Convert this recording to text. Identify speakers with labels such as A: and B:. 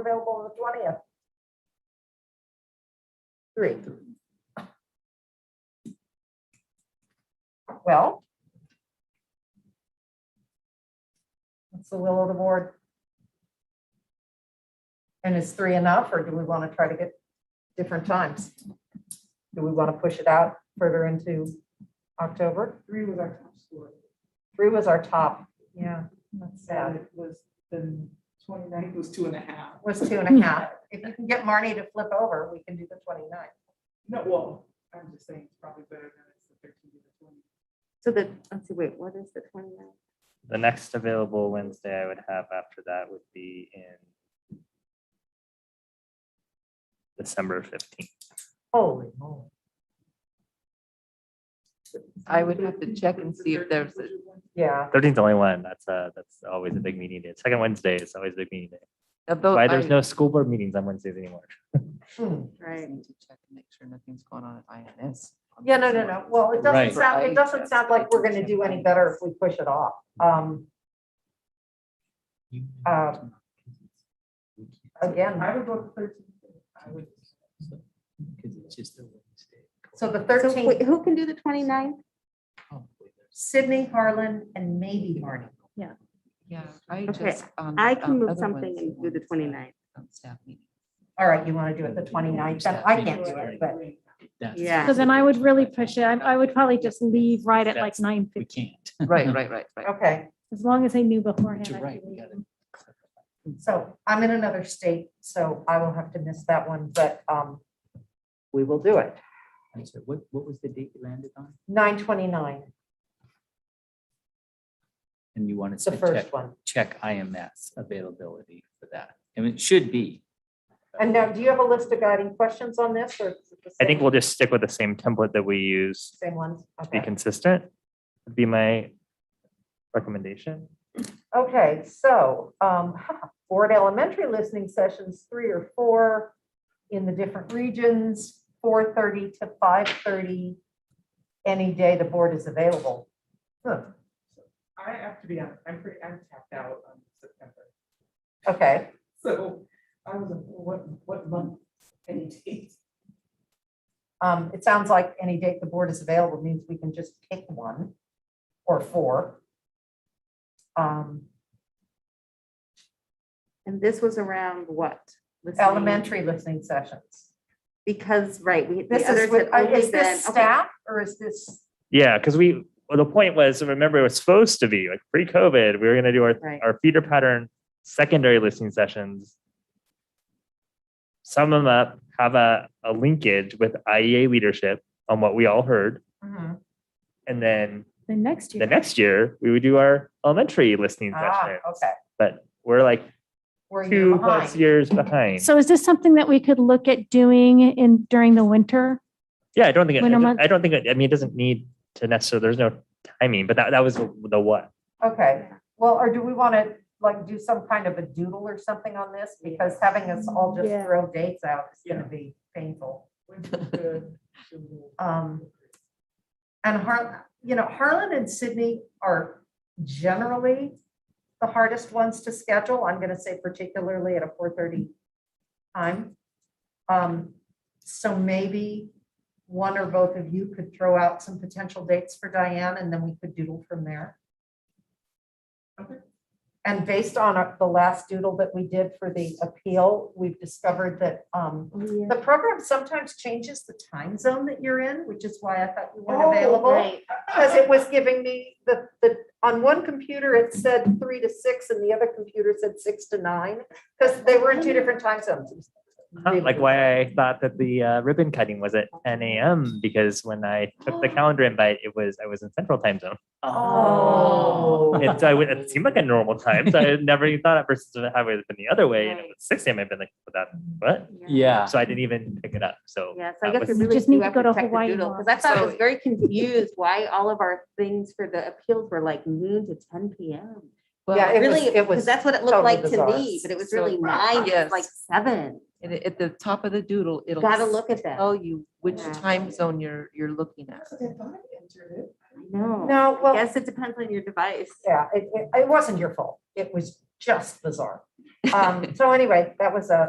A: available on the twentieth. Three. Well. What's the will of the board? And is three enough, or do we want to try to get different times? Do we want to push it out further into October?
B: Three was our top score.
A: Three was our top. Yeah, that's sad.
B: And it was, then 29th was two and a half.
A: was two and a half. If you can get Marnie to flip over, we can do the 29th.
B: No, well, I'm just saying it's probably better than it's the thirteen to the twenty.
C: So the, let's see, wait, what is the 29th?
D: The next available Wednesday I would have after that would be in December fifteenth.
A: Holy moly.
E: I would have to check and see if there's, a-
A: Yeah,
D: Thirteenth only one. That's uh that's always a big meeting day. Second Wednesday is always a big meeting day.
E: although.
D: Why there's
E: I-
D: no school board meetings on Wednesdays anymore.
A: Hmm.
C: Right.
E: Need to check and make sure nothing's going on at INS.
A: yeah, no, no, no. Well, it doesn't
D: Right.
A: sound, it doesn't sound like we're gonna do any better if we push it off. Um, Um, again,
B: I would go to thirteen. I would.
F: Because it's just a Wednesday.
A: so the
C: So wait,
A: 13th,
C: Who can do the 29th?
F: Probably there's-
A: Sydney, Harlan, and maybe Marnie.
E: Yeah, I
C: Okay,
E: just. on
C: I
E: the,
C: can
E: um,
C: move
E: other
C: something
E: Wednesday
C: and do the
E: ones, uh,
C: 29th.
E: on Staff meeting.
A: All right, you wanna do it the 29th? Then I can't do it, but
F: That's-
C: Yeah.
G: So then I would really push it. I, I would probably just leave right at like
F: That's-
G: nine
F: We
G: fifty,
F: can't.
E: Right, right, right, right.
A: okay.
G: as long as I knew beforehand.
F: You're
G: I
F: right,
G: could
F: we
G: leave.
F: gotta-
A: So I'm in another state, so I will have to miss that one, but, um, we will do it.
F: I'm sorry, What, what was the date you landed on?
A: Nine twenty-nine,
F: And you wanted
A: it's the
F: to check,
A: first one.
F: check IMS availability for that. And it should be.
A: And now, do you have a list of guiding questions on this or? is it the
D: I think
A: same-
D: we'll just stick with the same template that we use
A: Same ones?
D: to be
A: Okay.
D: consistent. Would be my recommendation.
A: Okay, so um, board elementary listening sessions, three or four in the different regions, four thirty to five thirty, any day the board is available. Huh,
B: I have to be honest, I'm pretty, I'm tapped out on September.
A: Okay,
B: So I was, like, what, what month? Any date?
A: um, it sounds like any date the board is available means we can just pick one or four. Um,
C: And this was around what? Listening?
A: Elementary listening sessions.
C: Because, right, we,
A: This
C: the
A: is,
C: others
A: with-
C: had
A: uh,
C: only
A: is
C: been.
A: this
C: okay,
A: staff or is this,
D: Yeah, because we, well, the point was, remember, it was supposed to be like pre-COVID, we were gonna do our,
C: Right.
D: our feeder pattern, secondary listening sessions. Sum them up, have a, a linkage with IEA leadership on what we all heard.
A: Mhm.
D: And then
G: The next
D: the
G: year.
D: next year, we would do our elementary listening
A: ah,
D: session.
A: okay,
D: But we're like
A: were you
D: two plus
A: behind?
D: years behind.
G: So is this something that we could look at doing in, during the winter?
D: Yeah, I don't think, it-
G: Winter month-
D: I don't think, it- I mean, it doesn't need to necessarily, there's no timing, but that, that was the the what.
A: Okay, well, or do we want to like do some kind of a doodle or something on this? Because having us all just
G: Yeah.
A: throw dates out is going to be painful.
B: When's the-
A: Um, And Har, you know, Harlan and Sydney are generally the hardest ones to schedule. I'm going to say particularly at a four thirty time. Um, So maybe one or both of you could throw out some potential dates for Diane and then we could doodle from there.
B: Okay.
A: And based on our- the last doodle that we did for the appeal, we've discovered that um,
C: yeah.
A: the program sometimes changes the time zone that you're in, which is why I thought you
B: Oh,
A: weren't available.
C: Right,
A: Because it was giving me the, the, on one computer, it said three to six and the other computer said six to nine. Because they were in two different time zones. It was
D: Huh,
A: really
D: Like why I thought that the uh, ribbon cutting was at ten AM because when I took the calendar invite, it was, I was in central time zone.
A: Oh.
D: And so I would- it seemed like a normal time. So I had never even thought at first that it would have been the other way. And it
C: Right.
D: was six AM. I've been like, "What that, what?
F: Yeah.
D: So I didn't even pick it up. So.
C: Yeah, so I
D: that
C: guess we
D: was-
C: really
G: Just
C: do
G: need to
C: have
G: go
C: to
G: to
C: check the
G: Hawaii
C: doodle, because I
G: more.
C: thought I was
E: So-
C: very confused why all of our things for the appeals were like noon to ten PM.
E: Well,
A: Yeah, it was-
C: Really,
A: it
C: because
A: was
C: that's what it
A: totally
C: looked like to
A: bizarre.
C: me, but it was
E: So-
C: really nine, it was
E: Yes.
C: like seven.
E: and at, at the top of the doodle, it'll.
C: Gotta look at that.
E: Tell you which
C: Yeah.
E: time zone you're, you're looking at.
B: That's what I thought I entered it.
C: No.
A: No, well,
C: Yes, it depends on your device.
A: yeah, it, it, it wasn't your fault. It was just bizarre. Um, so anyway, that was a,